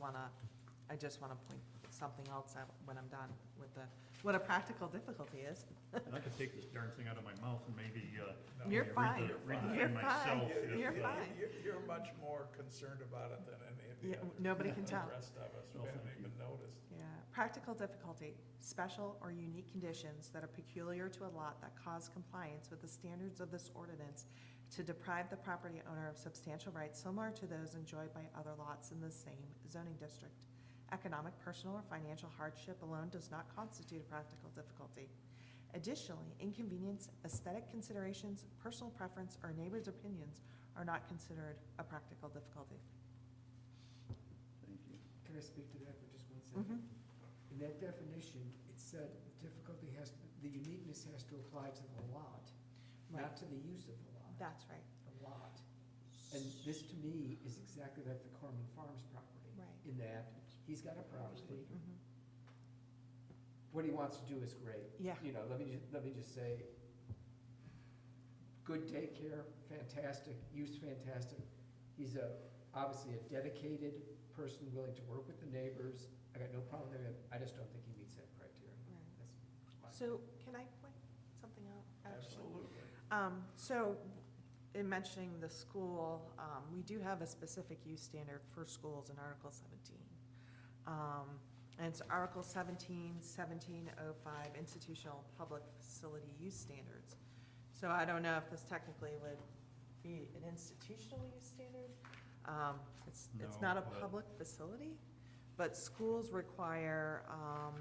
wanna, I just wanna point something else out when I'm done with the, what a practical difficulty is. I could take this darn thing out of my mouth and maybe, uh. You're read the- fine. Read the You're thing fine. myself. if, You're uh, fine. You're, you're much more concerned about it than any of Yeah, the others. nobody can The tell. rest of us, No, we haven't thank you. even noticed. Yeah, practical difficulty, special or unique conditions that are peculiar to a lot that cause compliance with the standards of this ordinance to deprive the property owner of substantial rights similar to those enjoyed by other lots in the same zoning district. Economic, personal, or financial hardship alone does not constitute a practical difficulty. Additionally, inconvenience, aesthetic considerations, personal preference, or neighbors' opinions are not considered a practical difficulty. Thank you. Can I speak to that for just one Mhm. second? In that definition, it said difficulty has, the uniqueness has to apply to the lot, not to the use of the lot, That's right. the lot. And this to me is exactly like the Corman Farms property. Right. In that, he's got a property, Mhm. what he wants to do is great. Yeah. You know, let me, ju- let me just say, good daycare, fantastic, use fantastic. He's a, obviously a dedicated person willing to work with the neighbors. I got no problem with him, I just don't think he meets that criteria. Right. That's my- So can I point something out? actually? Absolutely. Um, so in mentioning the school, um, we do have a specific use standard for schools in Article seventeen. Um, and it's Article 17, 1705 institutional public facility use standards. So I don't know if this technically would be an institutional use standard. Um, it's, it's No, not a but- public facility, but schools require, um,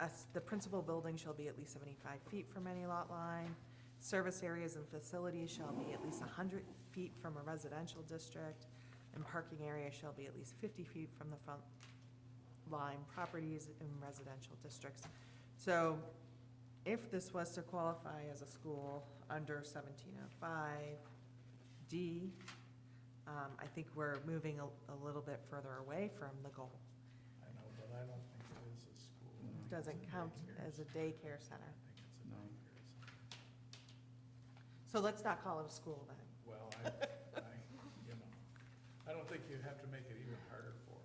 us, the principal building shall be at least seventy-five feet from any lot line. Service areas and facilities shall be at least hundred feet from a residential district, and parking areas shall be at least fifty feet from the front line properties in residential districts. So if this was to qualify as a school under seventeen oh five D, um, I think we're moving a, a little bit further away from the goal. I know, but I don't think it is a school. I think it's Doesn't a count daycare. as a daycare I center. think it's a No. daycare. center. So let's not call it a school then. Well, I, I, you know, I don't think you have to make it even harder for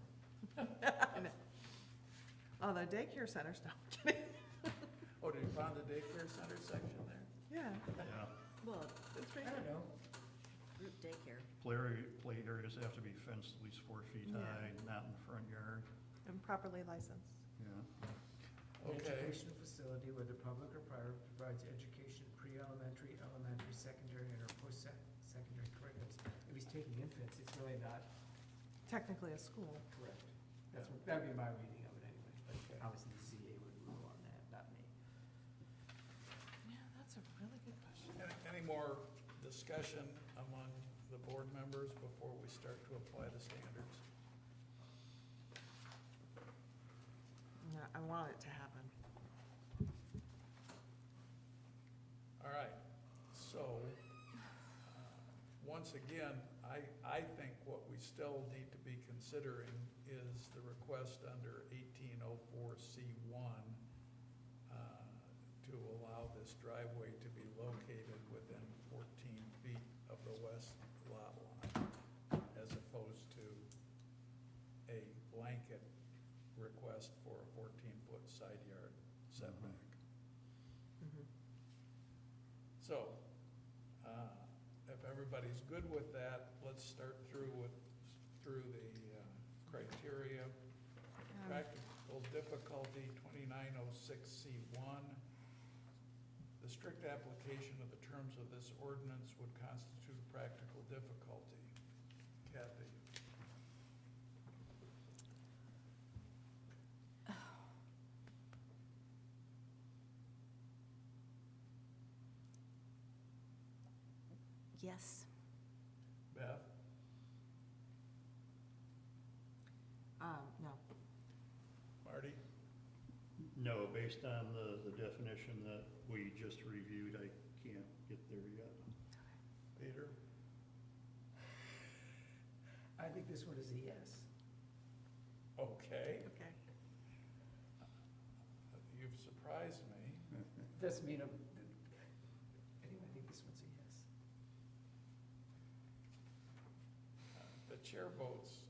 them. Although Oh, daycare centers don't get it. Oh, did you find the daycare center section there? Yeah, Yeah, Well, it's I right don't there. know, group daycare. play area, play areas have to be fenced at least four feet Yeah. high, not in the front yard, And properly licensed. yeah. an Okay. educational facility whether public or private provides education, pre-elementary, elementary, secondary, and or post-secondary curriculums. If he's taking infants, it's really not Technically a school. correct. That's what, that'd be my reading of it anyway, but Okay. obviously the ZBA would rule on that, not me. Yeah, that's a really good question. Any, any more discussion among the board members before we start to apply the standards? Yeah, I want it to happen. All right, so, uh, once again, I, I think what we still need to be considering is the request under eighteen oh four C one uh, to allow this driveway to be located within fourteen feet of the west lot line, as opposed to a blanket request for a fourteen-foot side yard setback. Mhm. So, uh, if everybody's good with that, let's start through with, through the uh, criteria. Um. Mm-hmm. Practical difficulty, twenty-nine oh six C one. The strict application of the terms of this ordinance would constitute practical difficulty. Kathy? Yes. Beth? Um, no, Marty? No, based on the, the definition that we just reviewed, I can't get there yet. Peter? I think this one is a yes. Okay, okay. you've surprised me. Doesn't mean I'm, anyway, I think this one's a yes. Uh, The chair votes